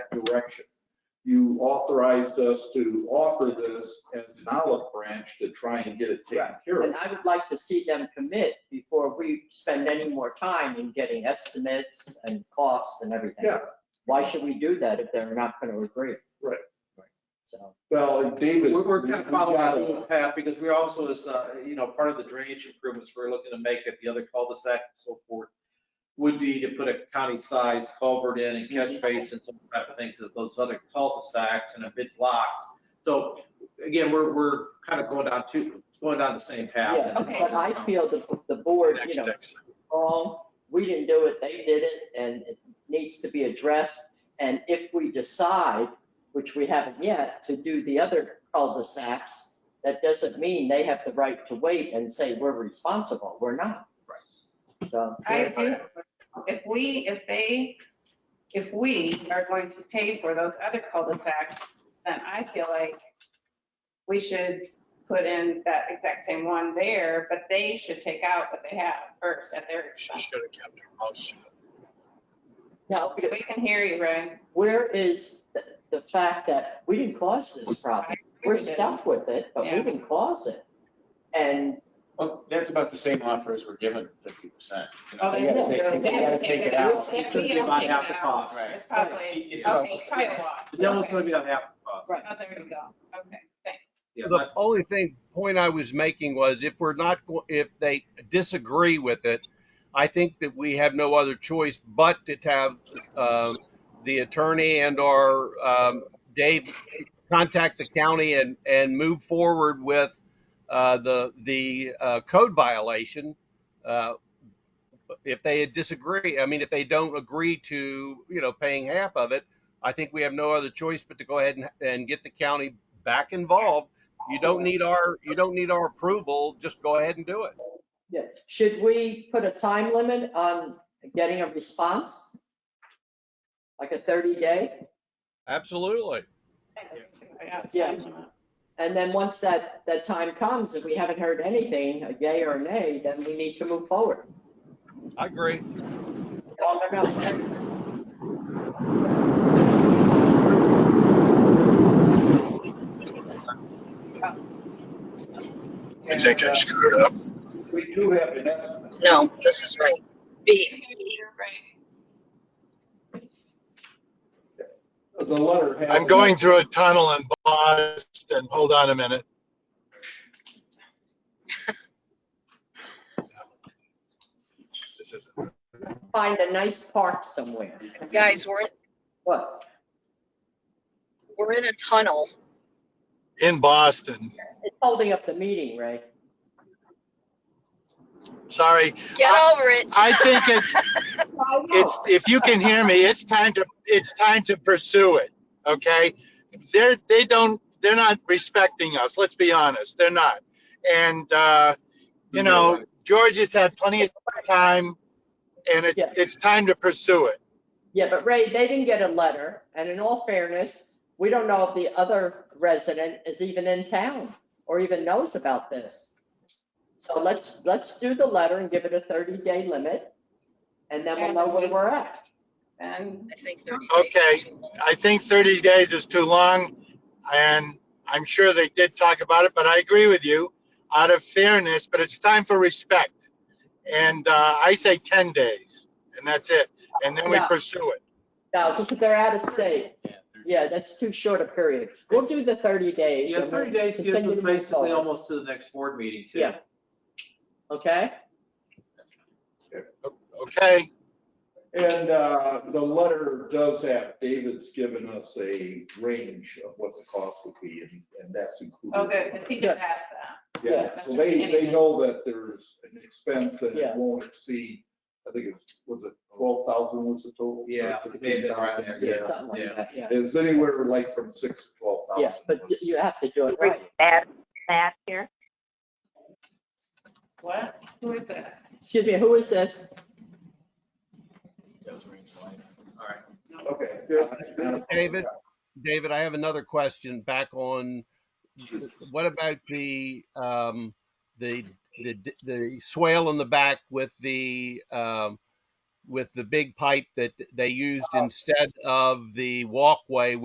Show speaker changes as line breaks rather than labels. direction. You authorized us to offer this as an olive branch to try and get it taken
Right.
care of.
And I would like to see them commit before we spend any more time in getting estimates and costs and everything.
Yeah.
Why should we do that if they're not going to agree?
Right.
So,
Well, and David.
We're, we're kind of
we
following
gotta-
that little path because we're also, this, uh, you know, part of the drainage improvements we're looking to make at the other cul-de-sac and so forth would be to put a county-sized culvert in and catch basin, some type of thing, because those other cul-de-sacs and a bit blocks. So again, we're, we're kind of going down two, going down the same path.
yeah,
okay.
but I feel the, the board, you
Next,
know,
next.
wrong, we didn't do it, they did it, and it needs to be addressed. And if we decide, which we haven't yet, to do the other cul-de-sacs, that doesn't mean they have the right to wait and say we're responsible, we're not. Right. So.
I do, if we, if they, if we are going to pay for those other cul-de-sacs, then I feel like we should put in that exact same one there, but they should take out what they have first at their
She
expense.
should have kept her mouth shut.
Now,
We can hear you, Ray.
where is the, the fact that we didn't cause this problem? We're stuck with it, but we
Yeah.
didn't cause it. And
Well, that's about the same offer as we're given, fifty percent.
Oh, they did. They
gotta
have to
take it
out.
out.
They have
It's gonna be
to
about
take
half
it
the
out.
cost.
Right.
It's probably,
It's about
okay,
the
it's probably a lot.
The devil's
Okay.
gonna be on half the cost.
Right.
Oh, there you go. Okay, thanks.
Yeah,
The only thing, point I was making was if we're not, go- if they disagree with it, I think that we have no other choice but to have um, the attorney and or um, Dave contact the county and, and move forward with uh, the, the uh, code violation. uh, If they disagree, I mean, if they don't agree to, you know, paying half of it, I think we have no other choice but to go ahead and, and get the county back involved you don't need our, you don't need our approval, just go ahead and do it.
Yeah, should we put a time limit on getting a response? Like a 30-day?
Absolutely.
Yeah. And then once that, that time comes, if we haven't heard anything, a yay or a nay, then we need to move forward.
I agree.
I think I screwed up.
We do have an estimate.
No, this is right. B.
The letter has.
I'm going through a tunnel in Boston. Hold on a minute. This is-
Find a nice park somewhere.
Guys, we're, in
What?
we're in a tunnel.
In Boston.
It's holding up the meeting, Ray.
Sorry.
Get
I-
over it.
I think it's, it's, if you can hear me, it's time to, it's time to pursue it, okay? They're, they don't, they're not respecting us, let's be honest, they're not. And, uh,
Mm-hmm.
you know, George has had plenty of time, and it,
Yeah.
it's time to pursue it.
Yeah, but Ray, they didn't get a letter, and in all fairness, we don't know if the other resident is even in town or even knows about this. So let's, let's do the letter and give it a 30-day limit, and then we'll know where we're at.
And
I think 30 days
Okay.
is too long.
I think 30 days is too long, and I'm sure they did talk about it, but I agree with you out of fairness, but it's time for respect. And uh, I say 10 days, and that's it. And then we
Yeah.
pursue it.
No, because if they're out of state, yeah, that's too short a period. We'll do the 30 days.
Yeah,
and we'll
thirty days gives
continue
us
to move
basically
forward.
almost to the next board meeting too.
Yeah. Okay?
Okay?
And uh, the letter does have, David's given us a range of what the cost would be, and and that's included.
Oh, good, because he just asked that.
Yeah, so they, they know that there's an expense that it
Yeah.
won't exceed, I think it's, was it twelve thousand was the total? Or
Yeah, maybe around there, yeah.
Something like that, yeah.
It's anywhere like from six to twelve thousand.
Yeah, but you have to do it right.
Matt, Matt here.
What? Who is that?
Excuse me, who is this?
All right.
Okay.
David, David, I have another question back on, what about the, um, the, the, the swale in the back with the, um, with the big pipe that they used instead of the walkway